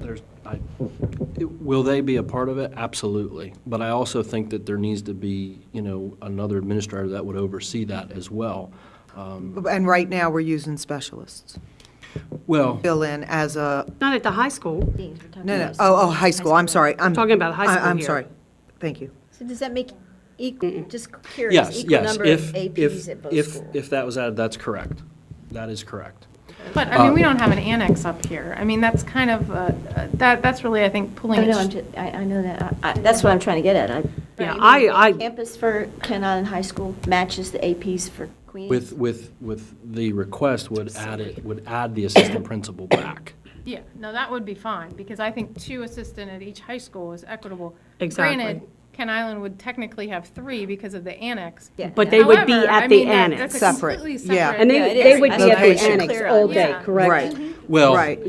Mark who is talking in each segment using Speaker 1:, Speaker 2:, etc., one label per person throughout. Speaker 1: there's, I, it- will they be a part of it? Absolutely. But I also think that there needs to be, you know, another administrator that would oversee that as well. Um,
Speaker 2: And right now, we're using specialists.
Speaker 1: Well,
Speaker 2: Fill in as a,
Speaker 3: Not at the high school.
Speaker 2: no, no, oh, oh, high school, I'm sorry. I'm
Speaker 3: Talking about high
Speaker 2: I-
Speaker 3: school
Speaker 2: I'm
Speaker 3: here.
Speaker 2: sorry. Thank you.
Speaker 4: So does that make equal, just curious,
Speaker 1: yes,
Speaker 4: equal
Speaker 1: yes.
Speaker 4: number of
Speaker 1: If,
Speaker 4: APs
Speaker 1: if,
Speaker 4: at both
Speaker 1: if,
Speaker 4: schools?
Speaker 1: if that was added, that's correct. That is correct.
Speaker 5: But, I mean, we
Speaker 2: Um,
Speaker 5: don't have an annex up here. I mean, that's kind of, uh, that, that's really, I think,
Speaker 4: I
Speaker 5: pulling.
Speaker 4: know,
Speaker 5: it-
Speaker 4: Oh, I'm ju- I, I know that, I- I- that's what I'm trying to get at. I-
Speaker 3: Yeah, I, I,
Speaker 4: Campus for Kent Island High School matches the APs for Queens.
Speaker 1: With, with, with the request would add it, would add the assistant principal back.
Speaker 5: Yeah, no, that would be fine, because I think two assistant at each high school is equitable.
Speaker 3: Exactly.
Speaker 5: Granted, Ken Island would technically have three because of the annex.
Speaker 4: Yeah.
Speaker 6: But they would be
Speaker 5: However, I
Speaker 6: at the
Speaker 5: mean, that- that's
Speaker 6: annex.
Speaker 5: a
Speaker 2: Separate,
Speaker 5: completely
Speaker 2: yeah.
Speaker 5: separate-
Speaker 6: And
Speaker 4: Yeah, it
Speaker 6: they,
Speaker 4: is.
Speaker 6: they would
Speaker 4: I
Speaker 6: be
Speaker 4: think
Speaker 6: at
Speaker 4: we
Speaker 6: the
Speaker 4: should
Speaker 6: annex
Speaker 4: clear
Speaker 6: all
Speaker 4: on
Speaker 6: day,
Speaker 5: that.
Speaker 6: correct?
Speaker 1: Well,
Speaker 2: Right.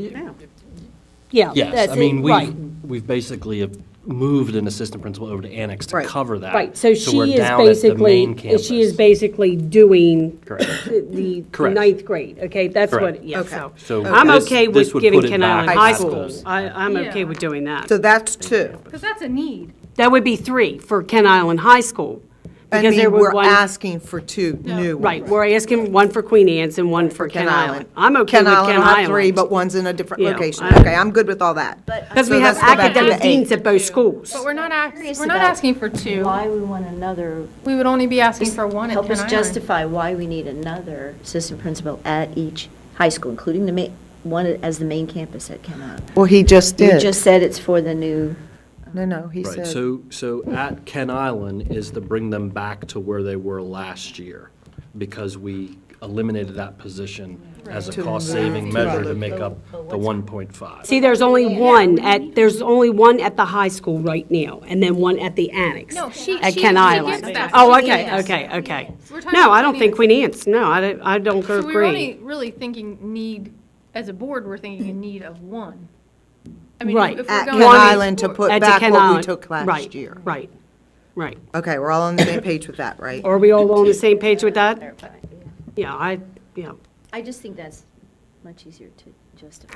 Speaker 6: Yeah.
Speaker 1: yes.
Speaker 6: that's
Speaker 1: I
Speaker 6: it,
Speaker 1: mean,
Speaker 6: right.
Speaker 1: we've, we've basically have moved an assistant principal over to annex to
Speaker 2: Right.
Speaker 1: cover that.
Speaker 6: Right, so
Speaker 1: we're
Speaker 6: she is
Speaker 1: down at the main
Speaker 6: basically, she is
Speaker 1: campus.
Speaker 6: basically doing
Speaker 1: Correct.
Speaker 6: the the
Speaker 1: Correct.
Speaker 6: ninth grade, okay? That's
Speaker 1: Correct.
Speaker 6: what, yeah,
Speaker 2: Okay.
Speaker 6: so.
Speaker 1: So
Speaker 6: I'm
Speaker 1: this-
Speaker 6: okay
Speaker 1: this
Speaker 6: with
Speaker 1: would
Speaker 6: giving
Speaker 1: put it
Speaker 6: Ken
Speaker 1: back
Speaker 6: Island
Speaker 1: at
Speaker 6: High
Speaker 1: that
Speaker 6: School.
Speaker 1: school.
Speaker 6: I, I'm okay with doing that.
Speaker 2: So that's two.
Speaker 5: Because that's a need.
Speaker 6: That would be three for Ken Island High School.
Speaker 2: I
Speaker 6: because there
Speaker 2: mean,
Speaker 6: were
Speaker 2: we're
Speaker 6: one-
Speaker 2: asking for two new ones.
Speaker 6: Right, we're asking one for Queen Anne's and one for Ken Island. I'm okay with Ken Island.
Speaker 2: I'll have three, but one's in a different
Speaker 6: Yeah,
Speaker 2: location.
Speaker 6: I-
Speaker 2: Okay, I'm good with all that.
Speaker 4: But-
Speaker 6: Because
Speaker 2: So
Speaker 6: we have
Speaker 2: let's go back to the
Speaker 6: academic deans
Speaker 2: eight.
Speaker 6: at both schools.
Speaker 5: But we're not, ask-
Speaker 4: Curious
Speaker 5: we're not
Speaker 4: about
Speaker 5: asking for two.
Speaker 4: Why we want another.
Speaker 5: We would only be asking for one at Ken
Speaker 4: Help us
Speaker 5: Island.
Speaker 4: justify why we need another assistant principal at each high school, including the ma, one as the main campus at Kent Island.
Speaker 2: Well, he just
Speaker 4: You
Speaker 2: did.
Speaker 4: just said it's for the new.
Speaker 2: No, no, he
Speaker 1: Right,
Speaker 2: said,
Speaker 1: so, so at Ken Island is to bring them back to where they were last year, because we eliminated that position as a cost-saving measure to make up the 1.5.
Speaker 6: See, there's only one at, there's only one at the high school right now, and then one at the annex.
Speaker 5: No, she-
Speaker 6: At
Speaker 5: she-
Speaker 6: Ken
Speaker 5: she
Speaker 6: Island.
Speaker 5: gets that.
Speaker 6: Oh,
Speaker 5: She
Speaker 6: okay,
Speaker 5: gets
Speaker 6: okay, okay.
Speaker 5: We're talking
Speaker 6: No,
Speaker 5: about
Speaker 6: I don't
Speaker 5: Queen
Speaker 6: think
Speaker 5: Anne's.
Speaker 6: Queen Anne's, no, I don't, I don't
Speaker 5: So we we're only
Speaker 6: agree.
Speaker 5: really thinking need, as a board, we're thinking a need of one. I mean,
Speaker 6: Right.
Speaker 5: if we're
Speaker 2: at
Speaker 5: going
Speaker 2: Ken
Speaker 5: to
Speaker 2: Island to
Speaker 5: explore-
Speaker 2: put
Speaker 6: At
Speaker 2: back
Speaker 6: Ken
Speaker 2: what we
Speaker 6: Island.
Speaker 2: took last
Speaker 6: Right,
Speaker 2: year.
Speaker 6: Right, right.
Speaker 2: Okay, we're all on the same page with that, right?
Speaker 6: Are we all on the same page with that? Yeah, I, yeah,
Speaker 4: I just think that's much easier to justify.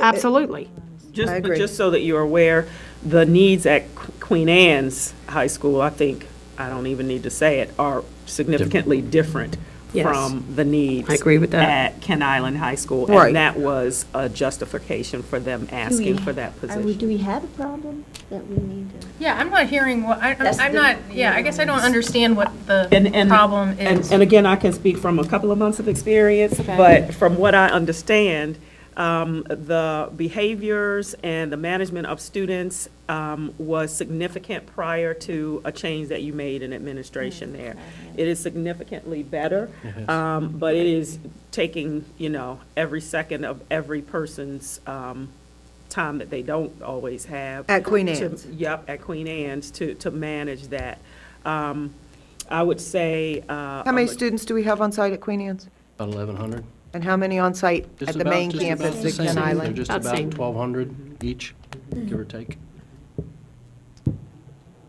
Speaker 6: absolutely.
Speaker 2: I
Speaker 7: Just, but
Speaker 2: agree.
Speaker 7: just so that you're aware, the needs at Qu- Queen Anne's High School, I think, I don't even need to say it, are significantly different
Speaker 6: Yes.
Speaker 7: from the needs.
Speaker 6: I agree with that.
Speaker 7: At Ken Island High School.
Speaker 2: Right.
Speaker 7: And that was a justification for them asking for that position.
Speaker 4: Do we have a problem that we need to?
Speaker 5: Yeah, I'm not hearing what, I-
Speaker 4: That's
Speaker 5: I'm
Speaker 4: the-
Speaker 5: not, yeah, I guess I don't understand what the
Speaker 7: And- and-
Speaker 5: problem
Speaker 7: and-
Speaker 5: is.
Speaker 7: And again, I can speak from a couple of months of experience, but from what I understand, um, the behaviors and the management of students um, was significant prior to a change that you made in
Speaker 5: Mm,
Speaker 7: administration there. It is significantly better, um, but it is taking, you know, every second of every person's um, time that they don't always have.
Speaker 2: At Queen
Speaker 7: to-
Speaker 2: Anne's.
Speaker 7: Yep, at Queen Anne's to, to manage that. Um, I would say. uh, oh,
Speaker 2: How many students do we have on site at Queen Anne's?
Speaker 1: About 1,100?
Speaker 2: And how many on site
Speaker 1: Just
Speaker 2: at the
Speaker 1: about-
Speaker 2: main
Speaker 1: just about
Speaker 2: campus
Speaker 1: the
Speaker 2: at Ken
Speaker 1: same. They're
Speaker 2: Island?
Speaker 1: just
Speaker 6: About
Speaker 1: about
Speaker 6: same.
Speaker 1: 1,200 each, give or take.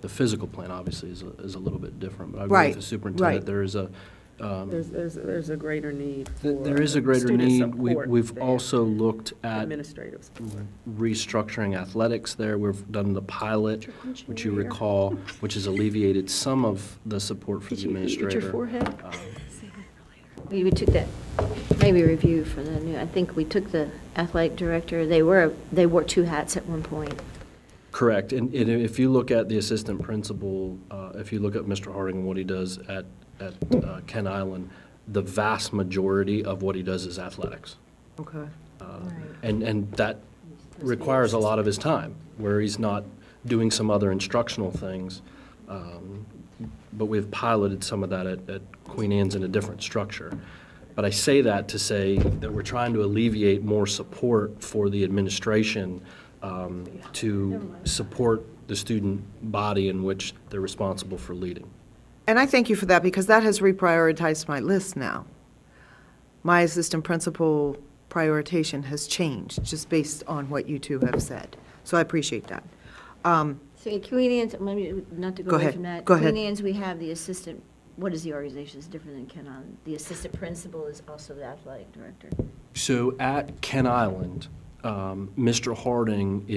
Speaker 1: The physical plan, obviously, is, a- is a little bit different, but I agree
Speaker 2: Right,
Speaker 1: with the superintendent.
Speaker 2: right.
Speaker 1: There is a, um,
Speaker 7: There's, there's, there's a greater need
Speaker 1: th-
Speaker 7: for.
Speaker 1: there is a greater
Speaker 7: student
Speaker 1: need. We-
Speaker 7: support
Speaker 1: We've
Speaker 7: than
Speaker 1: also looked at
Speaker 7: Administrative support.
Speaker 1: restructuring athletics there. We've done the pilot, which you recall, which has alleviated some of the support for the administrator.
Speaker 4: We we took that, maybe review for the new, I think we took the athletic director, they were, they wore two hats at one point.
Speaker 1: Correct. And and if you look at the assistant principal, uh, if you look at Mr. Harding and what he does at, at uh, Ken Island, the vast majority of what he does is athletics. Uh,
Speaker 2: Okay.
Speaker 1: And, and that requires a lot of his time, where he's not doing some other instructional things. Um, But we've piloted some of that at, at Queen Anne's in a different structure. But I say that to say that we're trying to alleviate more support for the administration um, to support the student body in which they're responsible for leading.
Speaker 2: And I thank you for that because that has reprioritized my list now. My assistant principal prioritization has changed just based on what you two have said. So I appreciate that. Um,
Speaker 4: So at Queen Anne's, maybe not to
Speaker 2: Go
Speaker 4: go away
Speaker 2: ahead.
Speaker 4: from that.
Speaker 2: Go ahead.
Speaker 4: Queen Anne's, we have the assistant, what is the organization, it's different than Ken Island. The assistant principal is also the athletic director.
Speaker 1: So at Ken Island, um, Mr. Harding